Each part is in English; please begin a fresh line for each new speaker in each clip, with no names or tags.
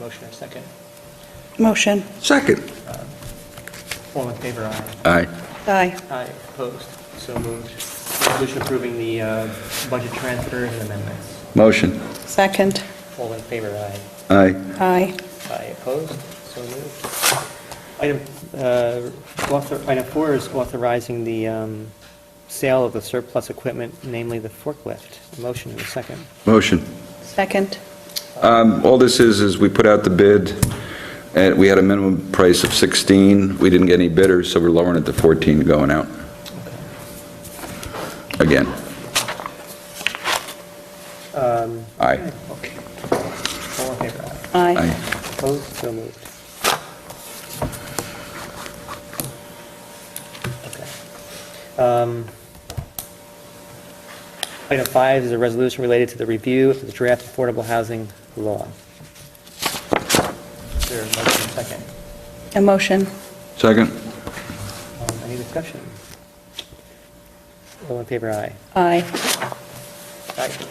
Motion and second.
Motion.
Second.
All in favor, aye.
Aye.
Aye.
Aye, opposed, so moved. Resolution approving the uh, budget transfers and amendments.
Motion.
Second.
All in favor, aye.
Aye.
Aye.
Aye, opposed, so moved. Item, uh, author- item four is authorizing the um, sale of the surplus equipment, namely the forklift. Motion and second.
Motion.
Second.
Um, All this is, is we put out the bid, and we had a minimum price of 16. We didn't get any bidders, so we're lowering it to 14 going out. Again. Aye.
Okay. All in favor, aye.
Aye.
Aye.
Opposed, so moved. Okay. Um, Item five is a resolution related to the review of the draft affordable housing law. Is there a motion and second?
A motion.
Second.
Um, Any discussion? All in favor, aye.
Aye.
Aye.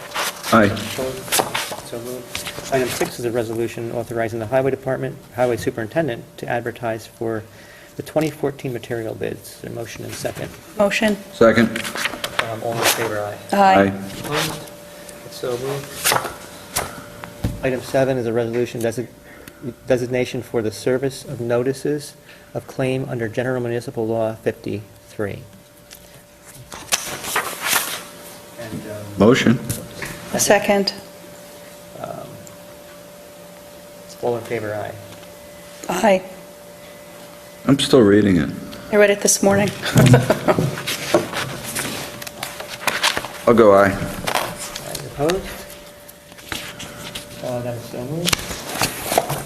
Aye.
Opposed? So moved. Item six is a resolution authorizing the Highway Department, Highway Superintendent to advertise for the 2014 material bids. Is there a motion and second?
Motion.
Second.
Um, All in favor, aye.
Aye.
Opposed? So moved. Item seven is a resolution desi- designation for the service of notices of claim under General Municipal Law 53. And, um,
Motion.
A second.
All in favor, aye.
Aye.
I'm still reading it.
I read it this morning.
I'll go aye.
Aye, Opposed? Uh, That is so moved.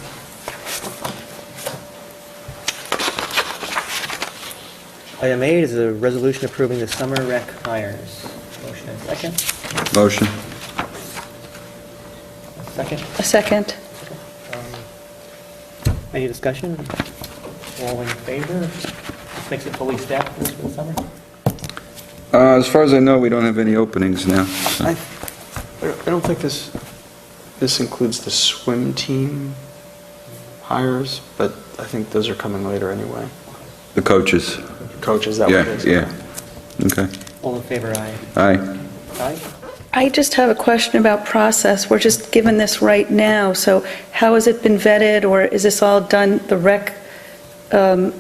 Item eight is a resolution approving the summer rec hires. Motion and second.
Motion.
Second.
A second.
Um, Any discussion? All in favor? Makes it fully staffed for the summer?
Uh, As far as I know, we don't have any openings now. so-
I I don't- I don't think this, this includes the swim team hires, but I think those are coming later anyway.
The coaches.
Coaches, that
Yeah,
would be.
yeah. Okay.
All in favor, aye.
Aye.
Aye?
I just have a question about process. We're just given this right now, so how has it been vetted, or is this all done, the rec? um,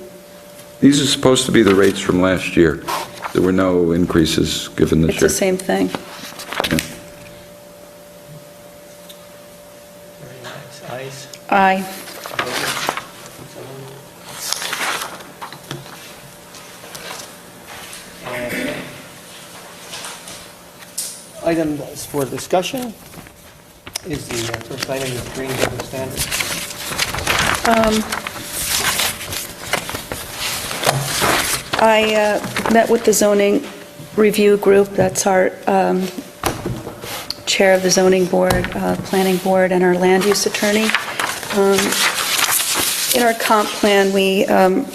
These are supposed to be the rates from last year. There were no increases given this
It's the same
year.
thing.
Very nice. Ayes?
Aye.
And Item for discussion is the uh, first item is green building standards.
Um, I uh, met with the zoning review group, that's our um, chair of the zoning board, uh, planning board, and our land use attorney. Um, In our comp plan, we um,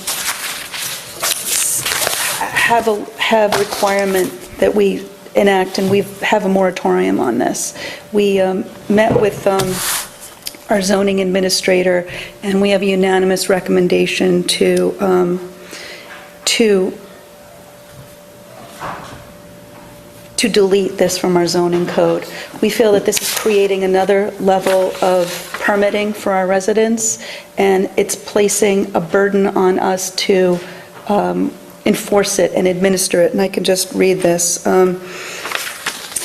have a, have a requirement that we enact, and we have a moratorium on this. We um, met with um, our zoning administrator, and we have a unanimous recommendation to, um, to, to delete this from our zoning code. We feel that this is creating another level of permitting for our residents, and it's placing a burden on us to um, enforce it and administer it. And I can just read this. Um,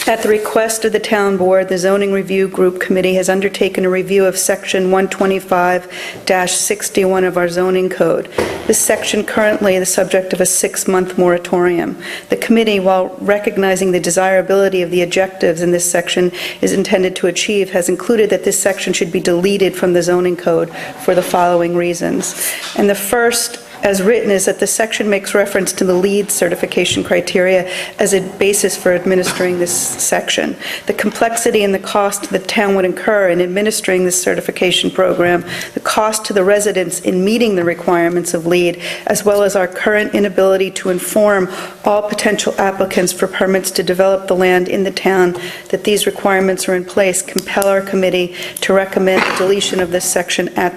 at the request of the town board, the zoning review group committee has undertaken a review of section 125-61 of our zoning code. This section currently the subject of a six-month moratorium. The committee, while recognizing the desirability of the objectives in this section is intended to achieve, has included that this section should be deleted from the zoning code for the following reasons. And the first as written is that the section makes reference to the LEED certification criteria as a basis for administering this section. The complexity and the cost the town would incur in administering this certification program, the cost to the residents in meeting the requirements of LEED, as well as our current inability to inform all potential applicants for permits to develop the land in the town that these requirements are in place, compel our committee to recommend the deletion of this section at